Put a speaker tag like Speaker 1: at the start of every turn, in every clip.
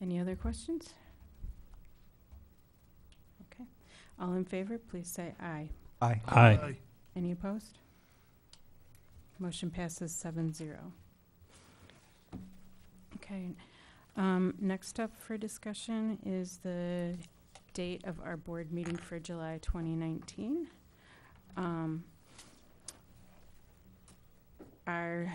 Speaker 1: Any other questions? Okay. All in favor, please say aye.
Speaker 2: Aye.
Speaker 3: Aye.
Speaker 1: Any opposed? Motion passes seven zero. Okay, um, next up for discussion is the date of our board meeting for July twenty nineteen. Um, our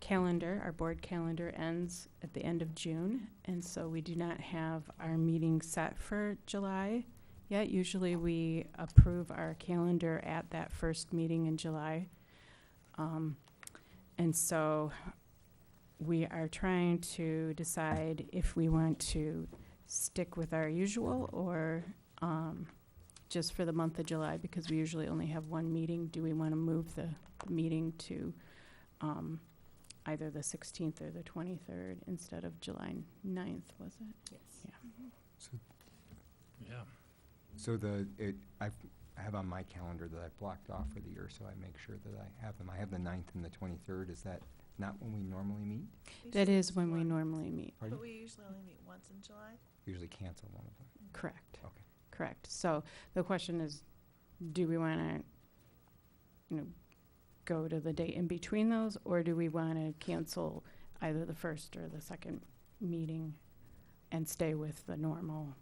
Speaker 1: calendar, our board calendar ends at the end of June, and so we do not have our meeting set for July yet. Usually we approve our calendar at that first meeting in July. Um, and so we are trying to decide if we want to stick with our usual or, um, just for the month of July, because we usually only have one meeting. Do we want to move the meeting to, um, either the sixteenth or the twenty-third instead of July ninth, was it?
Speaker 3: Yeah.
Speaker 2: So the, it, I I have on my calendar that I've blocked off for the year, so I make sure that I have them. I have the ninth and the twenty-third. Is that not when we normally meet?
Speaker 1: That is when we normally meet.
Speaker 2: Pardon?
Speaker 4: But we usually only meet once in July.
Speaker 2: Usually cancel one of them.
Speaker 1: Correct.
Speaker 2: Okay.
Speaker 1: Correct. So the question is, do we want to, you know, go to the date in between those, or do we want to cancel either the first or the second meeting and stay with the normal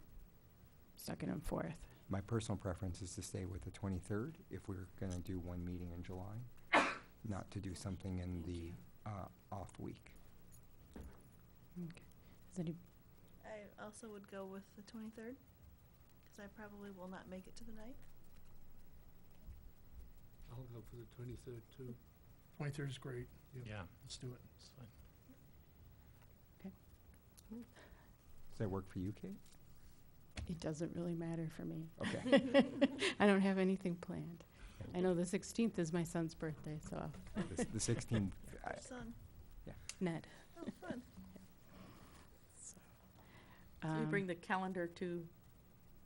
Speaker 1: second and fourth?
Speaker 2: My personal preference is to stay with the twenty-third if we're gonna do one meeting in July, not to do something in the, uh, off week.
Speaker 1: Is any,
Speaker 4: I also would go with the twenty-third, because I probably will not make it to the night.
Speaker 5: I'll go for the twenty-third too. Twenty-third is great.
Speaker 3: Yeah.
Speaker 5: Let's do it.
Speaker 3: It's fine.
Speaker 2: Does that work for you, Kate?
Speaker 1: it doesn't really matter for me.
Speaker 2: Okay.
Speaker 1: I don't have anything planned. I know the sixteenth is my son's birthday, so,
Speaker 2: The s- The sixteenth,
Speaker 4: Your son.
Speaker 1: Ned.
Speaker 4: Oh, fun.
Speaker 6: So we
Speaker 1: Um,
Speaker 6: bring the calendar to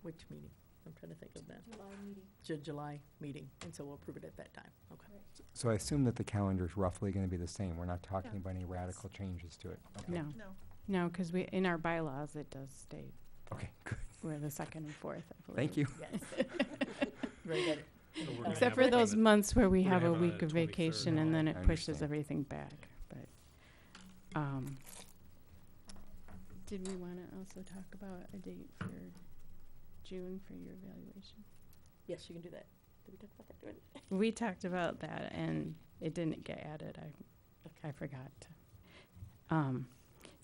Speaker 6: which meeting? I'm trying to think of that. July meeting. July meeting, and so we'll approve it at that time, okay.
Speaker 2: so I assume that the calendar is roughly gonna be the same. We're not talking
Speaker 4: Yeah.
Speaker 2: about any radical changes to it. Okay.
Speaker 1: No,
Speaker 4: No,
Speaker 1: no, because we, in our bylaws, it does state
Speaker 2: Okay, good.
Speaker 1: We're the second and fourth, I believe.
Speaker 2: Thank you.
Speaker 6: Yes. Very good.
Speaker 3: So we're gonna
Speaker 1: Except
Speaker 3: have
Speaker 1: for
Speaker 3: it on
Speaker 1: those
Speaker 3: the-
Speaker 1: months where we
Speaker 3: we're gonna
Speaker 1: have a
Speaker 3: have it on
Speaker 1: week
Speaker 3: the
Speaker 1: of
Speaker 3: 23rd.
Speaker 1: vacation and then
Speaker 2: I
Speaker 1: it pushes
Speaker 2: understand.
Speaker 1: everything back, but, um, did we want to also talk about a date for June for your evaluation?
Speaker 6: Yes, you can do that. Did we talk about that already?
Speaker 1: We talked about that and it didn't get added. I, I forgot. Um,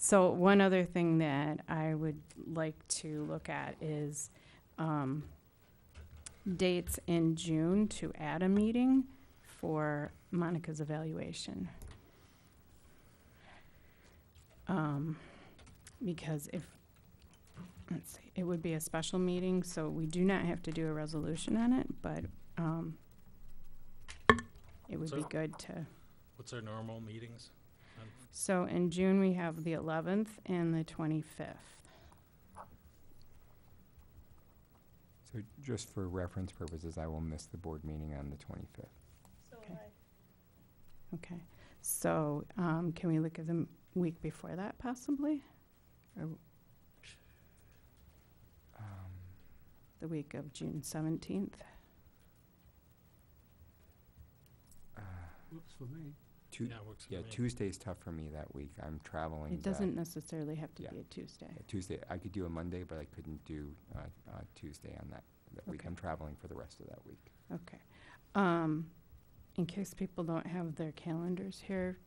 Speaker 1: so one other thing that I would like to look at is, um, dates in June to add a meeting for Monica's evaluation. Um, because if, let's see, it would be a special meeting, so we do not have to do a resolution on it, but, um, it would be
Speaker 3: So-
Speaker 1: good to,
Speaker 3: What's our normal meetings? Um, on-
Speaker 1: so in June, we have the eleventh and the twenty-fifth.
Speaker 2: So just for reference purposes, I will miss the board meeting on the 25th.
Speaker 4: so
Speaker 1: Okay.
Speaker 4: I,
Speaker 1: Okay, so, um, can we look at the m- week before that possibly? Or w-
Speaker 2: Um,
Speaker 1: the week of June seventeenth?
Speaker 2: uh,
Speaker 5: Works for me.
Speaker 2: Tu-
Speaker 3: Yeah, it works for
Speaker 2: Yeah,
Speaker 3: me.
Speaker 2: Tuesday's tough for me that week. I'm traveling.
Speaker 1: It
Speaker 2: that-
Speaker 1: doesn't necessarily have to
Speaker 2: yeah.
Speaker 1: be a Tuesday.
Speaker 2: uh, Tuesday, I could do a Monday, but I couldn't do uh, uh, Tuesday on that, that week.
Speaker 1: Okay.
Speaker 2: I'm traveling for the rest of that week.
Speaker 1: Um, in case people don't have their calendars here,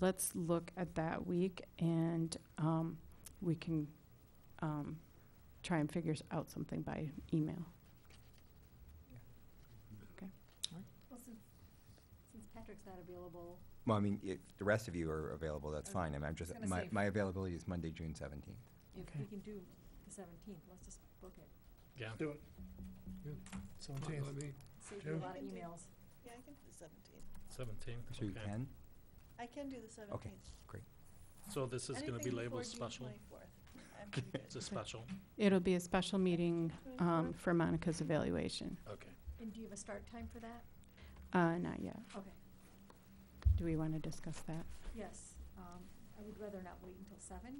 Speaker 1: let's look at that week and, um, we can, um, try and figure s- out something by email.
Speaker 2: Well, I mean, if the rest of you are available,
Speaker 1: Oh,
Speaker 2: that's fine. I mean, I'm just, my, my availability is Monday, June 17th.
Speaker 1: Okay.
Speaker 3: Yeah.
Speaker 5: Do it. Seventeenth. Save you a
Speaker 4: lot of emails. yeah, I can do the seventeenth.
Speaker 3: Seventeenth,
Speaker 2: So you
Speaker 3: okay.
Speaker 2: can?
Speaker 4: I can do the seventeenth.
Speaker 3: So this is gonna be labeled special?
Speaker 4: I'm pretty
Speaker 3: It's a
Speaker 4: good.
Speaker 3: special?
Speaker 1: It'll be a special meeting, um,
Speaker 4: 24th?
Speaker 1: for Monica's evaluation.
Speaker 3: Okay.
Speaker 1: Uh, not yet. Okay. Do we want to discuss that?
Speaker 7: Yes, um, I would rather not wait until seven.